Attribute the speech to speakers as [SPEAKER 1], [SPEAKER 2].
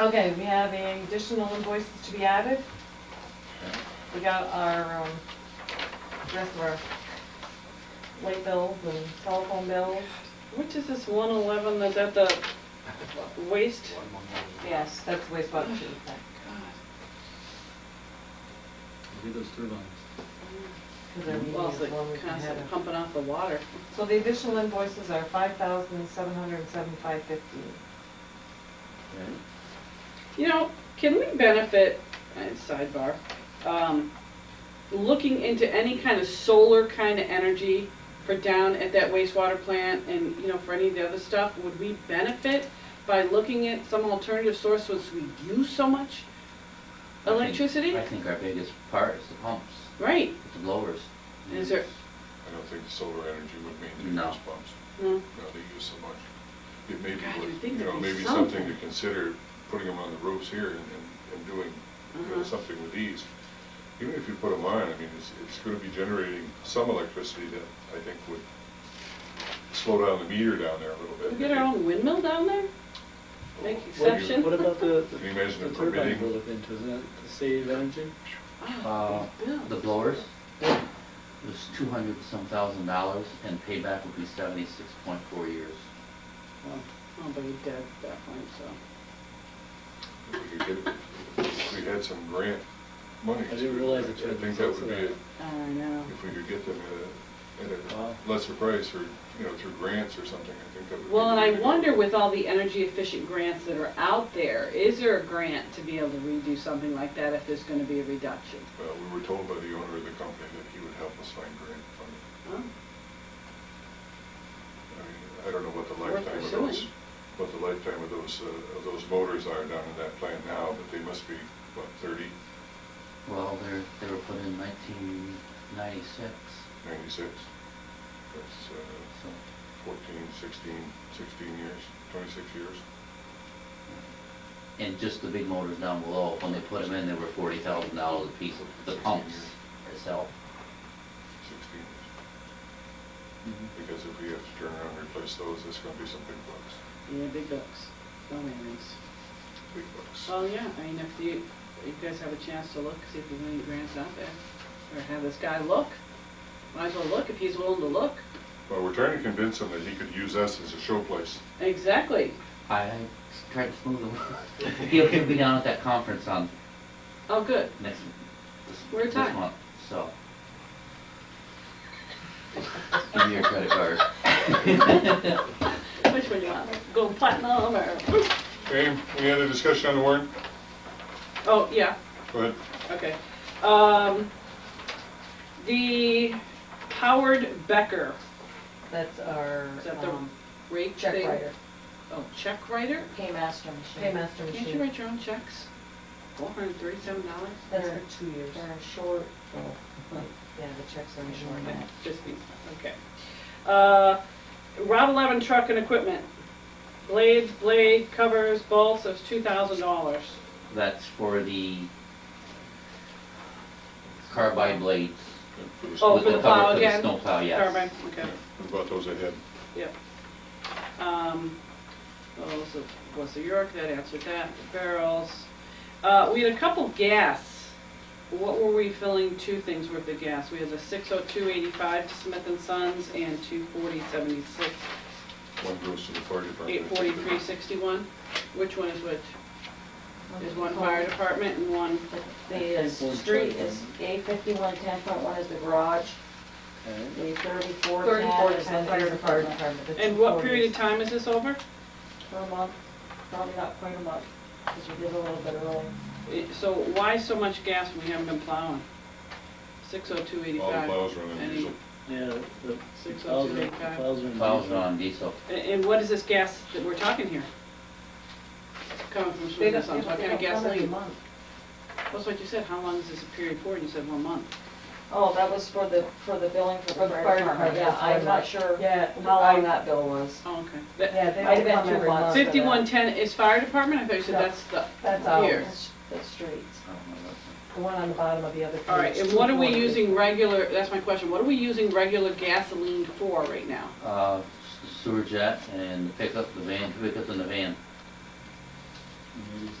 [SPEAKER 1] Okay, we have the additional invoices to be added. We got our, um, rest of our late bills and telephone bills.
[SPEAKER 2] Which is this one eleven, is that the waste?
[SPEAKER 1] Yes, that's wastewater treatment. plant,
[SPEAKER 3] Read those through lines.
[SPEAKER 1] 'cause they're meeting
[SPEAKER 2] Well, it's
[SPEAKER 1] is one we
[SPEAKER 2] like
[SPEAKER 1] can have
[SPEAKER 2] constant
[SPEAKER 1] it.
[SPEAKER 2] pumping off the water.
[SPEAKER 1] So the additional invoices are five thousand seven hundred and seventy-five fifteen.
[SPEAKER 2] You know, can we benefit, uh, sidebar, um, looking into any kind of solar kind of energy for down at that wastewater plant and, you know, for any of the other stuff, would we benefit by looking at some alternative source since we use so much
[SPEAKER 4] I think-
[SPEAKER 2] electricity?
[SPEAKER 4] I think our biggest part is the pumps,
[SPEAKER 2] Right,
[SPEAKER 4] the blowers.
[SPEAKER 2] is there,
[SPEAKER 5] I don't think solar energy would mean
[SPEAKER 4] No.
[SPEAKER 5] the gas pumps,
[SPEAKER 2] no,
[SPEAKER 5] no, they use so much. It may be,
[SPEAKER 2] God, you'd
[SPEAKER 5] worth-
[SPEAKER 2] think
[SPEAKER 5] you know,
[SPEAKER 2] there'd be
[SPEAKER 5] maybe something to
[SPEAKER 2] something.
[SPEAKER 5] consider, putting them on the roofs here and, and- and doing, you know,
[SPEAKER 2] Uh-huh.
[SPEAKER 5] something with these. Even if you put them on, I mean, it's, it's gonna be generating some electricity that I think would slow down the meter down there a little bit.
[SPEAKER 2] we get our own windmill down there? Make
[SPEAKER 3] What-
[SPEAKER 2] exception?
[SPEAKER 3] What about the,
[SPEAKER 5] Can you
[SPEAKER 3] the
[SPEAKER 5] imagine
[SPEAKER 3] the
[SPEAKER 5] it
[SPEAKER 3] turbine
[SPEAKER 5] permitting?
[SPEAKER 3] we're looking into, isn't that to save energy?
[SPEAKER 4] Uh,
[SPEAKER 2] Ah,
[SPEAKER 4] The
[SPEAKER 2] Bill.
[SPEAKER 4] blowers, it was two hundred some thousand dollars, and payback would be seventy-six point four years.
[SPEAKER 3] Wow.
[SPEAKER 2] Oh, but he's dead at that point, so.
[SPEAKER 5] If we could get- if we had some grant money.
[SPEAKER 3] I didn't realize that you
[SPEAKER 5] I
[SPEAKER 3] had
[SPEAKER 5] think that
[SPEAKER 3] to
[SPEAKER 5] would be,
[SPEAKER 3] that.
[SPEAKER 5] a-
[SPEAKER 2] I know.
[SPEAKER 5] if we could get them at a, at
[SPEAKER 3] Wow.
[SPEAKER 5] a lesser price or, you know, through grants or something, I think that would be.
[SPEAKER 2] Well, and I
[SPEAKER 5] really good.
[SPEAKER 2] wonder with all the energy efficient grants that are out there, is there a grant to be able to redo something like that if there's gonna be a reduction?
[SPEAKER 5] Well, we were told by the owner of the company that he would help us find grant funding.
[SPEAKER 2] Huh?
[SPEAKER 5] I mean, I don't know what the
[SPEAKER 2] Worth
[SPEAKER 5] lifetime of
[SPEAKER 2] pursuing.
[SPEAKER 5] those, what the lifetime of those, uh, of those motors are down in that plant now, but they must be, what, thirty,
[SPEAKER 4] Well, they're, they were put in nineteen ninety-six,
[SPEAKER 5] ninety-six? That's uh,
[SPEAKER 4] so.
[SPEAKER 5] fourteen, sixteen, sixteen years, twenty-six years.
[SPEAKER 4] And just the big motors down below, when they put them in, they were forty thousand dollars a piece, the pumps itself.
[SPEAKER 5] Sixteen years.
[SPEAKER 3] Mhm.
[SPEAKER 5] Because if we have to turn around and replace those, it's gonna be some big bucks,
[SPEAKER 2] Yeah, big bucks, no earnings.
[SPEAKER 5] big bucks.
[SPEAKER 2] Well, yeah, I mean, if you, you guys have a chance to look, see if there's any grants out there, or have this guy look. Might as well look if he's willing to look.
[SPEAKER 5] Well, we're trying to convince him that he could use us as a showplace.
[SPEAKER 2] Exactly.
[SPEAKER 4] I tried to smooth them. He'll, he'll be down at that conference on
[SPEAKER 2] Oh, good.
[SPEAKER 4] next, this,
[SPEAKER 2] Where
[SPEAKER 4] this
[SPEAKER 2] time?
[SPEAKER 4] month, so. Give me your credit card.
[SPEAKER 2] Which one do you want? Go platinum or?
[SPEAKER 5] Okay, any other discussion on the warrant?
[SPEAKER 2] Oh, yeah.
[SPEAKER 5] Go ahead.
[SPEAKER 2] Okay. Um, the Howard Becker
[SPEAKER 6] That's our
[SPEAKER 2] Is that the
[SPEAKER 6] um,
[SPEAKER 2] rate
[SPEAKER 6] check
[SPEAKER 2] thing-
[SPEAKER 6] writer,
[SPEAKER 2] Oh, check writer?
[SPEAKER 6] paymaster machine.
[SPEAKER 1] Paymaster
[SPEAKER 2] Can't you
[SPEAKER 1] machine,
[SPEAKER 2] write your own checks? Four hundred and thirty-seven dollars?
[SPEAKER 1] that's for two years.
[SPEAKER 6] They're short,
[SPEAKER 1] Yeah, the checks are in short now.
[SPEAKER 2] Just me, okay. Uh, Route eleven truck and equipment. Blades, blade, covers, bolts, that's two thousand dollars.
[SPEAKER 4] That's for the carbide blades.
[SPEAKER 2] Oh,
[SPEAKER 4] with
[SPEAKER 2] for the
[SPEAKER 4] cover
[SPEAKER 2] plow
[SPEAKER 4] for the
[SPEAKER 2] again?
[SPEAKER 4] Snowplow, yes.
[SPEAKER 2] Carbine, okay,
[SPEAKER 5] What about those ahead?
[SPEAKER 2] yep. Um, oh, so, was the York, that answered that, barrels. Uh, we had a couple gas. What were we filling two things worth of gas? We had the six oh two eighty-five Smith and Sons and two forty seventy-six
[SPEAKER 5] One goes to the fire department.
[SPEAKER 2] Eight forty-three sixty-one, which one is which? There's one fire department and one,
[SPEAKER 6] the uh, street is A fifty-one, ten point one is the garage,
[SPEAKER 3] Okay.
[SPEAKER 6] the thirty-four,
[SPEAKER 1] Thirty-four
[SPEAKER 6] ten
[SPEAKER 1] is
[SPEAKER 6] is
[SPEAKER 1] the
[SPEAKER 6] the
[SPEAKER 1] fire department.
[SPEAKER 6] the
[SPEAKER 2] and what
[SPEAKER 6] 240 is
[SPEAKER 2] period of time is this over?
[SPEAKER 6] Per month, probably not quite a month, because we did a little bit early.
[SPEAKER 2] Eh, So why so much gas when we haven't been plowing? Six oh two
[SPEAKER 5] All the
[SPEAKER 2] eighty-five.
[SPEAKER 5] plows are on
[SPEAKER 2] Any-
[SPEAKER 5] diesel.
[SPEAKER 3] Yeah, the
[SPEAKER 2] Six oh
[SPEAKER 3] plows
[SPEAKER 2] two
[SPEAKER 3] are,
[SPEAKER 2] eight five.
[SPEAKER 3] plows are. in
[SPEAKER 4] Plows
[SPEAKER 3] diesel.
[SPEAKER 4] are on diesel.
[SPEAKER 2] And what is this gas that we're talking here? Coming from
[SPEAKER 1] They don't- they
[SPEAKER 2] Smith and
[SPEAKER 1] don't-
[SPEAKER 2] Sons, what
[SPEAKER 1] they
[SPEAKER 2] kind of
[SPEAKER 1] don't cover the
[SPEAKER 2] gasoline?
[SPEAKER 1] month.
[SPEAKER 2] That's what you said, how long is this a period for, and you said one month.
[SPEAKER 6] Oh, that was for the, for the billing for the fire department, yeah,
[SPEAKER 1] that's
[SPEAKER 6] I'm
[SPEAKER 1] right.
[SPEAKER 6] not sure
[SPEAKER 1] Yeah,
[SPEAKER 6] how
[SPEAKER 1] I-
[SPEAKER 6] long that bill was.
[SPEAKER 2] Oh, okay. That-
[SPEAKER 1] Yeah, they
[SPEAKER 6] Might have
[SPEAKER 1] don't
[SPEAKER 6] been
[SPEAKER 1] come
[SPEAKER 6] two
[SPEAKER 1] every
[SPEAKER 6] months.
[SPEAKER 1] month.
[SPEAKER 6] Fif-
[SPEAKER 2] Fifty-one-ten is fire department, I thought you said
[SPEAKER 1] No.
[SPEAKER 2] that's the,
[SPEAKER 1] That's
[SPEAKER 2] out.
[SPEAKER 1] ours,
[SPEAKER 2] Here.
[SPEAKER 6] That's- That's streets.
[SPEAKER 4] I don't know what-
[SPEAKER 1] the one on the bottom of the other page.
[SPEAKER 2] all right, and what are we
[SPEAKER 1] 240.
[SPEAKER 2] using regular, that's my question, what are we using regular gasoline for right now?
[SPEAKER 4] Uh, sewer jet and the pickup, the van, pickup and the van.
[SPEAKER 3] Maybe it's